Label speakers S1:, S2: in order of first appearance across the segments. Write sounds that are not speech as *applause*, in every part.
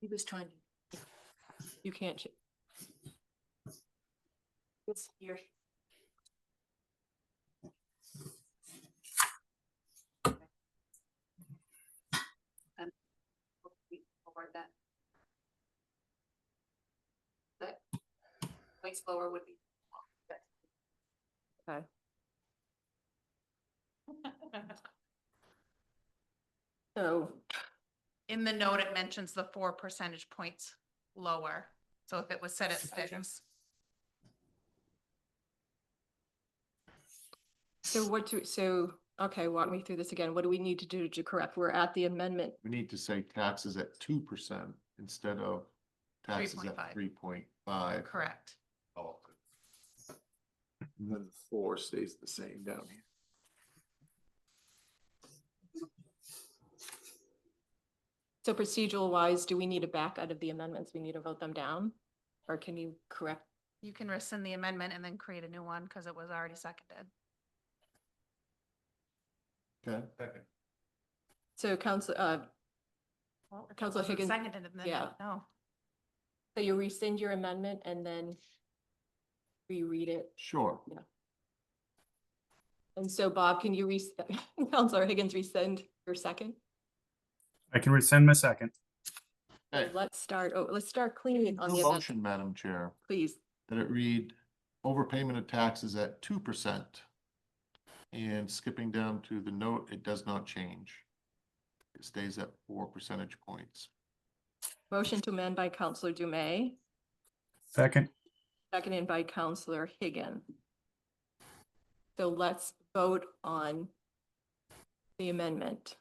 S1: He was trying. to- You can't. ch- It's here. Um, we forward that. That. Place lower would be. *laughs*
S2: Okay.
S1: So,
S3: In the note, it mentions the four percentage points lower. So if it was set at six,
S1: so what do, so, okay, walk me through this again. What do we need to do to correct? We're at the amendment
S4: We need to say taxes at two percent instead of taxes at
S3: 3.5.
S4: three point five.
S3: correct.
S4: And then the four stays the same down here.
S1: So procedural wise, do we need to back out of the amendments? We need to vote them down? Or can you correct?
S3: You can rescind the amendment and then create a new one because it was already seconded.
S4: Okay,
S1: So council, uh,
S3: Well, if it
S1: Counselor
S3: wasn't
S1: Higgins-
S3: Seconded and then,
S1: yeah.
S3: no,
S1: so you rescind your amendment and then reread it.
S4: sure.
S1: And so Bob, can you re, *laughs* Counselor Higgins rescind your second?
S5: I can rescind my second.
S4: Okay.
S1: Let's start, oh, let's start cleaning on the
S4: New
S1: amendment,
S4: Motion, Madam Chair,
S1: please.
S4: that it read overpayment of taxes at two percent. And skipping down to the note, it does not change. It stays at four percentage points.
S1: Motion to amend by Counselor Dume,
S5: Second,
S1: seconded by Counselor Higgins. So let's vote on the amendment.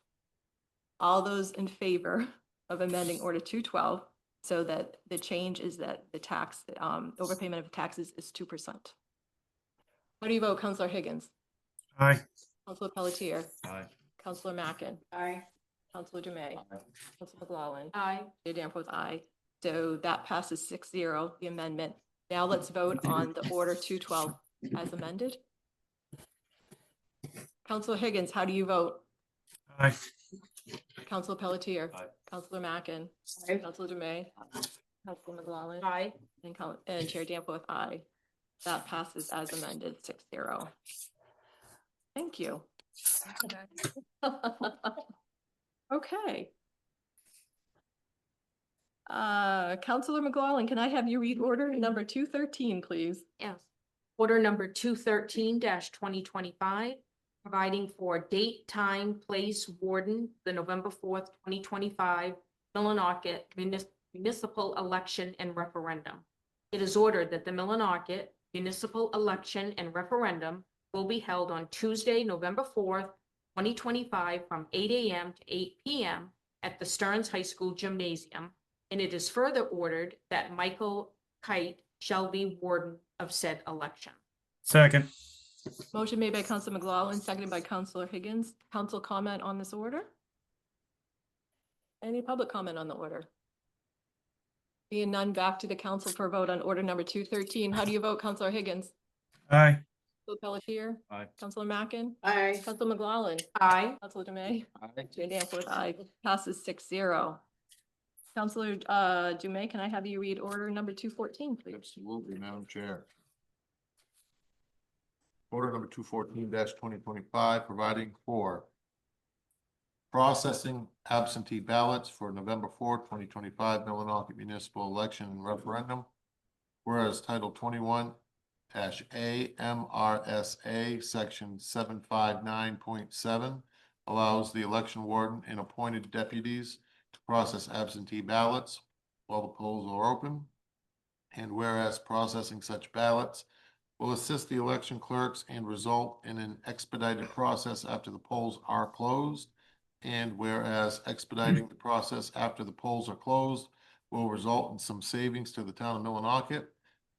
S1: All those in favor of amending order two twelve so that the change is that the tax, um, overpayment of taxes is two percent. How do you vote, Counselor Higgins?
S5: aye.
S1: Counselor Pelletier?
S4: Aye.
S1: Counselor Mackin?
S2: Aye.
S1: Counselor Dume? Counselor McLaughlin?
S2: Aye.
S1: Chair Danforth, aye. So that passes six zero, the amendment. Now let's vote on the order two twelve as amended. Counselor Higgins, how do you vote?
S5: Aye.
S1: Counselor Pelletier?
S4: Aye.
S1: Counselor Mackin?
S2: Aye.
S1: Counselor Dume? Counselor McGlaughlin?
S2: Aye.
S1: And Coun- and Chair Danforth, aye. That passes as amended, six zero. Thank you. Okay. Uh, Counselor McGlaughlin, can I have you read order number two thirteen, please?
S6: Yes. Order number two thirteen twenty twenty-five, providing for date, time, place, warden, the November fourth, twenty twenty-five Millinocket munis- municipal election and referendum. It is ordered that the Millinocket municipal election and referendum will be held on Tuesday, November fourth, twenty twenty-five, from eight AM to eight PM at the Stearns High School Gymnasium. And it is further ordered that Michael Kite shall be warden of said election.
S5: Second,
S1: Motion made by Counselor McGlaughlin, seconded by Counselor Higgins. Council comment on this order? Any public comment on the order? Being none, back to the council for vote on order number two thirteen. How do you vote, Counselor Higgins?
S5: aye.
S1: Counselor Pelletier?
S4: Aye.
S1: Counselor Mackin?
S2: Aye.
S1: Counselor McGlaughlin?
S6: Aye.
S1: Counselor Dume? Chair Danforth, aye. Passes six zero. Counselor, uh, Dume, can I have you read order number two fourteen, please?
S4: Absolutely, Madam Chair. Order number two fourteen twenty twenty-five, providing for processing absentee ballots for November fourth, twenty twenty-five, Millinocket Municipal Election and Referendum. Whereas Title twenty-one dash A M R S A, Section seven five nine point seven allows the election warden and appointed deputies to process absentee ballots while the polls are open. And whereas processing such ballots will assist the election clerks and result in an expedited process after the polls are closed. And whereas expediting the process after the polls are closed will result in some savings to the town of Millinocket.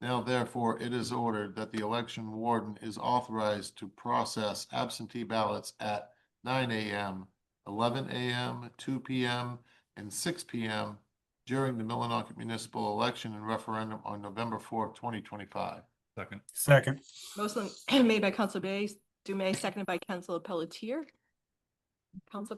S4: Now therefore, it is ordered that the election warden is authorized to process absentee ballots at nine AM, eleven AM, two PM, and six PM during the Millinocket municipal election and referendum on November fourth, twenty twenty-five.
S7: Second.
S5: Second,
S1: *clears throat* Motion made by Counselor Bay, Dume, seconded by Counselor Pelletier. Council